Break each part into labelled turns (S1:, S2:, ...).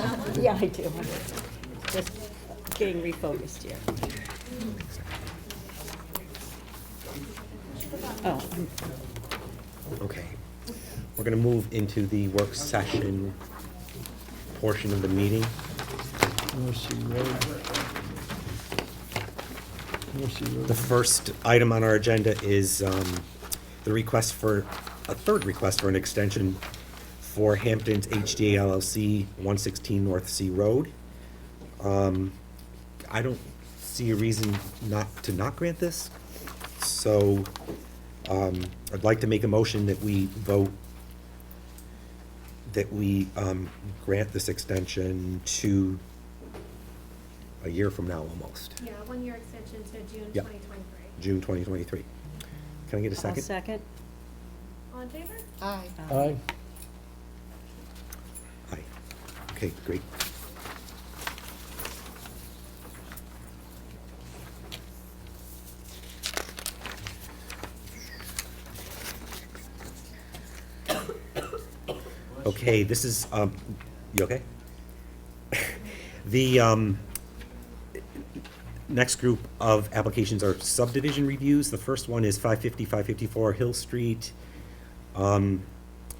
S1: Yeah, I do. Just getting refocused here. Oh, I'm-
S2: Okay. We're going to move into the work session portion of the meeting.
S3: Mercy Road. Mercy
S2: The
S3: Road.
S2: first item on our agenda is um, the request for, a third request for an extension for Hampton's HDA LLC, 116 North Sea Road. Um, I don't see a reason not, to not grant this, so um, I'd like to make a motion that we vote, that we um, grant this extension to a year from now, almost.
S4: Yeah, one-year extension to June
S2: Yeah.
S4: 2023.
S2: June 2023. Can I get a
S1: I'll
S2: 2nd
S1: second.
S4: All in favor?
S5: Aye.
S3: Aye.
S2: Aye. Okay, great. Okay, this is, um, you okay? The, um, next group of applications are subdivision reviews. The first one is 550, 554 Hill Street um,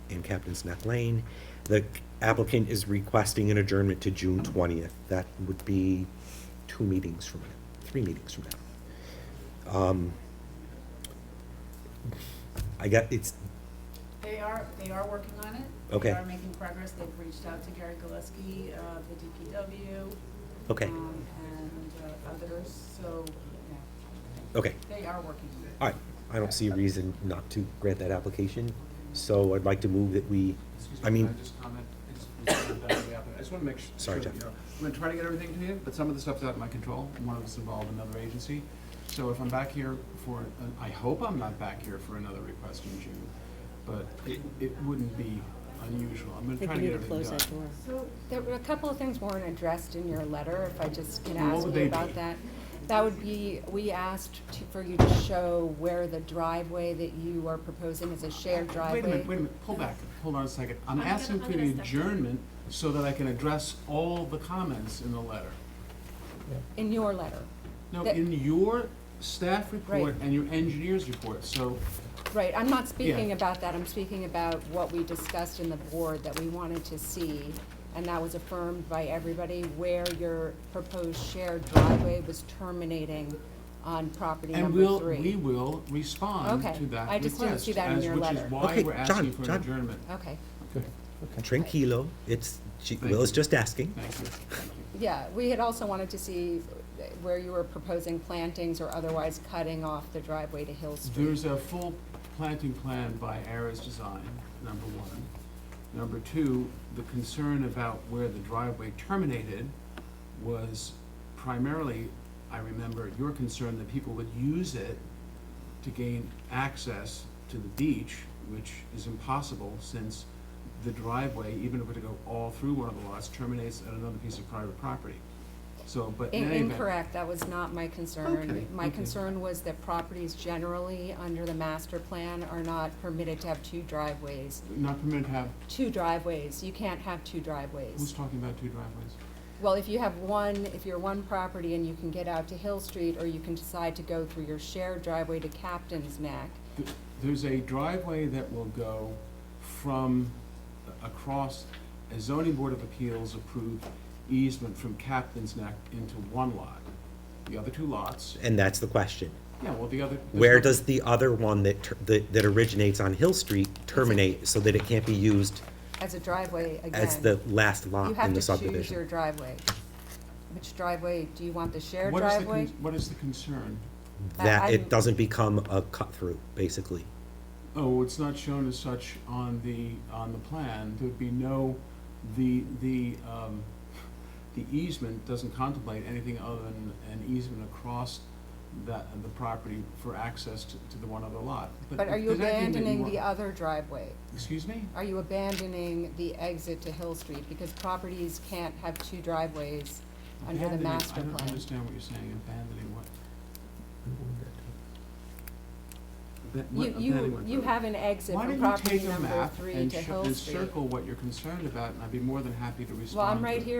S2: in Captain's Neck Lane. The applicant is requesting an adjournment to June twentieth. That would be two meetings from now, three meetings from now. Um, I got, it's,
S5: They are, they are working on it.
S2: Okay.
S5: They are making progress. They've reached out to Gary Gillespie, uh, the DPW.
S2: Okay.
S5: um, And uh, others, so, yeah,
S2: okay,
S5: they are working on it.
S2: all right. I don't see a reason not to grant that application, so I'd like to move that we,
S6: Excuse
S2: I
S6: me,
S2: mean.
S6: can I just comment? It's- it's sort of that way up. I just want to make sure.
S2: Sorry,
S6: sure that
S2: Jeff.
S6: you're- I'm going to try to get everything to you, but some of the stuff's out of my control, and one of us involved another agency. So if I'm back here for, an- I hope I'm not back here for another request in June, but it, it wouldn't be unusual. I'm
S1: I
S6: going to
S1: think
S6: try
S1: we
S6: to
S1: need
S6: get
S1: to
S6: everything done.
S1: close that door.
S7: So there were a couple of things weren't addressed in your letter, if I just can
S6: Well, what
S7: ask
S6: would
S7: you
S6: they be?
S7: about that. That would be, we asked to- for you to show where the driveway that you are proposing is a shared
S6: Wait a minute, wait a
S7: driveway.
S6: minute, pull back, hold on a second. I'm
S4: I'm gonna-
S6: asking
S4: I'm
S6: for the
S4: gonna step down.
S6: adjournment so that I can address all the comments in the letter.
S7: In your letter,
S6: No,
S7: That-
S6: in your staff report
S7: Right.
S6: and your engineer's report, so
S7: right, I'm not speaking about that, I'm speaking about what we discussed in the board that we wanted to see, and that was affirmed by everybody, where your proposed shared driveway was terminating on property
S6: And
S7: number
S6: we'll,
S7: three.
S6: we will respond
S7: Okay.
S6: to that request.
S7: I just didn't see that in
S6: as-
S7: your letter.
S6: Which
S2: Okay,
S6: is why we're
S2: John,
S6: asking for
S2: John.
S6: an adjournment.
S7: Okay.
S3: Good, okay.
S2: Tranquilo, it's, she-
S6: Thank
S2: Will is
S6: you.
S2: just asking.
S6: Thank you, thank you.
S7: Yeah, we had also wanted to see where you were proposing plantings or otherwise cutting off the driveway to Hill Street.
S6: There's a full planting plan by Ares Design, number one. Number two, the concern about where the driveway terminated was primarily, I remember, your concern that people would use it to gain access to the beach, which is impossible since the driveway, even if it were to go all through one of the lots, terminates at another piece of private property. So, but in
S7: In-
S6: any event.
S7: Incorrect, that was not my
S6: Okay,
S7: concern. My
S6: okay.
S7: concern was that properties generally under the master plan are not permitted to have two driveways.
S6: Not permitted to have,
S7: Two driveways, you can't have two
S6: who's
S7: driveways.
S6: talking about two driveways?
S7: Well, if you have one, if you're one property and you can get out to Hill Street, or you can decide to go through your shared driveway to Captain's Neck,
S6: Th- There's a driveway that will go from, a- across a zoning board of appeals approved easement from Captain's Neck into one lot. The other two lots,
S2: And that's the question.
S6: yeah, well, the other. there's
S2: Where
S6: no-
S2: does the other one that, ter- that that originates on Hill Street terminate so that it can't be used
S7: as a driveway again.
S2: as the last
S7: You
S2: lot uh, in
S7: have
S2: the
S7: to choose your
S2: subdivision?
S7: driveway. Which driveway, do you want the shared
S6: what is the
S7: driveway?
S6: con- What is the concern?
S7: I-
S2: That
S7: I'm-
S2: it doesn't become a cut-through, basically.
S6: Oh, it's not shown as such on the, on the plan. There'd be no, the, the, um, the easement doesn't contemplate anything other than an easement across that, the property for access to, to the one other lot.
S7: But are you
S6: there's anything that you
S7: abandoning
S6: want-
S7: the other driveway?
S6: Excuse me?
S7: Are you abandoning the exit to Hill Street? Because properties can't have two driveways under the
S6: Abandoning-
S7: master
S6: I don't
S7: plan.
S6: understand what you're saying, abandoning what? Aban- what-
S7: You, you,
S6: abandoning
S7: you
S6: what?
S7: have an exit
S6: Why
S7: from
S6: don't you
S7: property
S6: take a
S7: number
S6: map
S7: three
S6: and
S7: to
S6: sh-
S7: Hill
S6: and
S7: Street.
S6: circle what you're concerned about, and I'd be more than happy to respond
S7: Well, I'm
S6: to
S7: right
S6: it.
S7: here